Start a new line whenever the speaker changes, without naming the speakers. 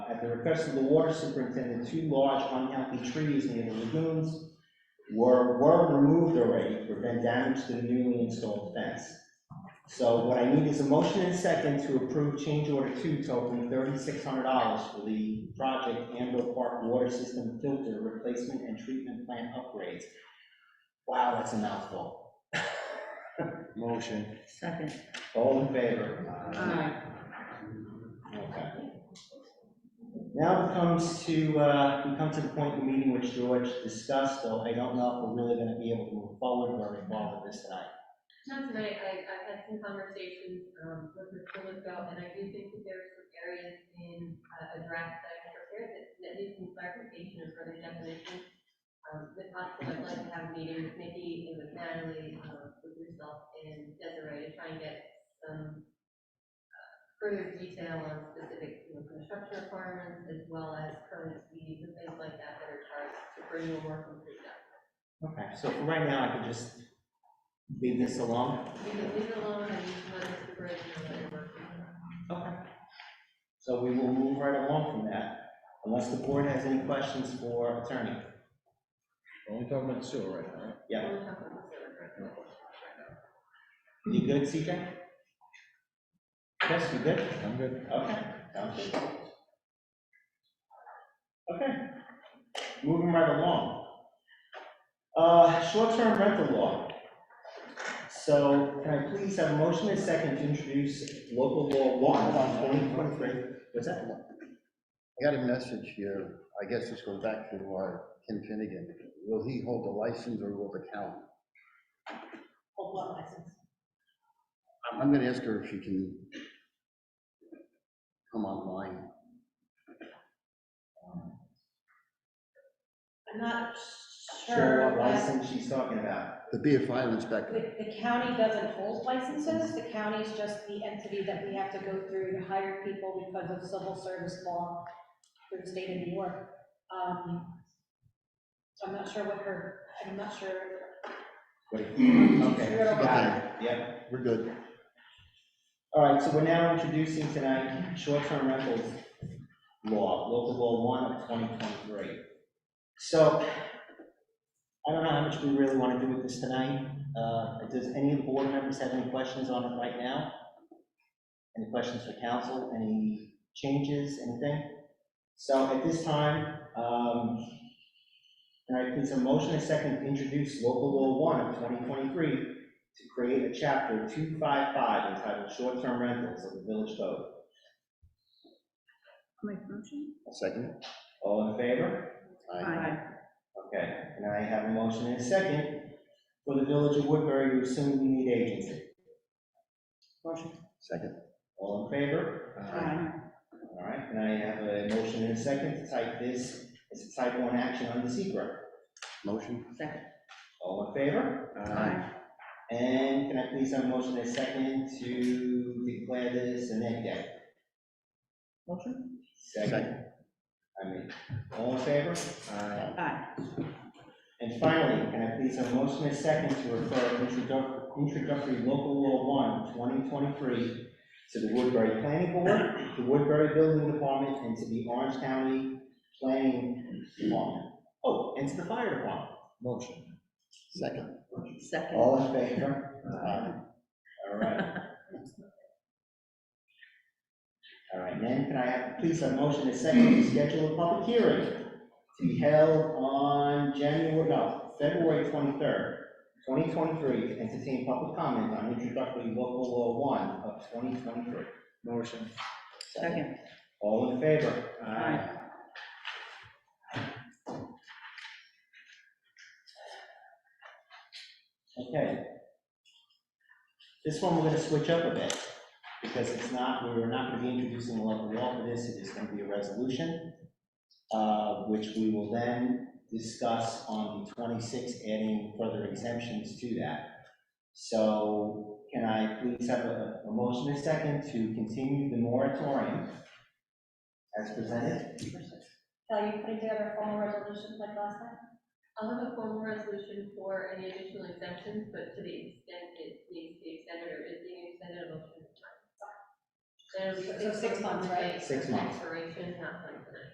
at the request of the water superintendent, two large unhealthy trees near the lagoons were, were removed already to prevent damage to the newly installed fence. So what I need is a motion and second to approve change order two totaling thirty-six hundred dollars for the project Anvil Park Water System Filter Replacement and Treatment Plant Upgrades. Wow, that's a mouthful. Motion.
Second.
All in favor?
Aye.
Okay. Now it comes to, uh, we come to the point in the meeting which George discussed, though I don't know if we're really gonna be able to move forward or involve with this tonight.
Not tonight, I, I've had some conversations, um, with Mr. Lipko, and I do think that there's some areas in, uh, a draft that I had prepared that, that needs some clarification or further definition. Um, if possible, I'd like to have a meeting with Nikki and with Natalie, um, with yourself and Desiree to try and get some uh, further detail on specific, you know, construction requirements as well as current speeds and things like that that are charged to bring you a more complete document.
Okay, so for right now, I can just leave this alone.
We can leave it alone and you can let Mr. Bridge know that you're working on it.
Okay. So we will move right along from that, unless the board has any questions for attorney.
We're Only talking about the sewer right now, right?
Yeah.
We'll talk about this later.
You good, CJ? Yes, you good?
I'm good.
Okay, sounds good. Okay, moving right along. Uh, short-term rental law. So can I please have a motion and second to introduce local law one on twenty twenty-three? What's that?
I got a message here, I guess this goes back to uh, Ken Finnegan. Will he hold the license or will the county?
Hold one license.
I'm- I'm gonna ask her if she can come online.
I'm not
Sure,
sure
what
that,
license she's talking about.
The BFI inspector,
the, the county doesn't hold licenses, the county's just the entity that we have to go through to hire people because of civil service law through the state of New York. Um, So I'm not sure what her, I'm not sure,
Wait, okay,
Sure, okay.
got it, yep.
we're good.
All right, so we're now introducing tonight short-term rentals law, local law one of twenty twenty-three. So I don't know how much we really want to do with this tonight. Uh, Does any of the board members have any questions on it right now? Any questions for council, any changes, anything? So at this time, um, can I please have a motion and second to introduce local law one of twenty twenty-three to create a chapter two five five entitled short-term rentals of the village code?
Make motion?
Second?
All in favor?
Aye.
Okay, and I have a motion and a second for the village of Woodbury to assume the lead agency.
Motion.
Second,
All in favor?
Aye.
All right, and I have a motion and a second to type this as a type one action under secret.
motion?
Second.
All in favor? And can I please have a motion and a second to declare this an egg day?
Motion?
Second. I mean, all in favor?
Aye.
Aye.
And finally, can I please have a motion and a second to refer introduc- introductory local law one, 2023, to the Woodbury Planning Board, the Woodbury Building Department, and to the Orange County Planning Department. Oh, and to the Fire Department.
Motion.
Second.
Second.
All in favor? All right. All right, then can I have, please have a motion and second to schedule a public hearing to be held on January, no, February twenty-third, twenty twenty-three, to entertain public comment on introductory local law one of twenty twenty-three.
Motion.
Second.
All in favor?
Aye.
Okay. This one, we're gonna switch up a bit, because it's not, we're not gonna be introducing a local law for this, it is gonna be a resolution, uh, which we will then discuss on the twenty-sixth, adding further exemptions to that. So can I please have a, a motion and a second to continue the moratorium as presented?
Kelly, you putting together formal resolutions like last time?
I'll have a formal resolution for any additional exemptions, but to the extent it needs to be extended or is being extended, I'll. Then it'll be
So six months, right?
Six months.
Expiration, not twenty-nine.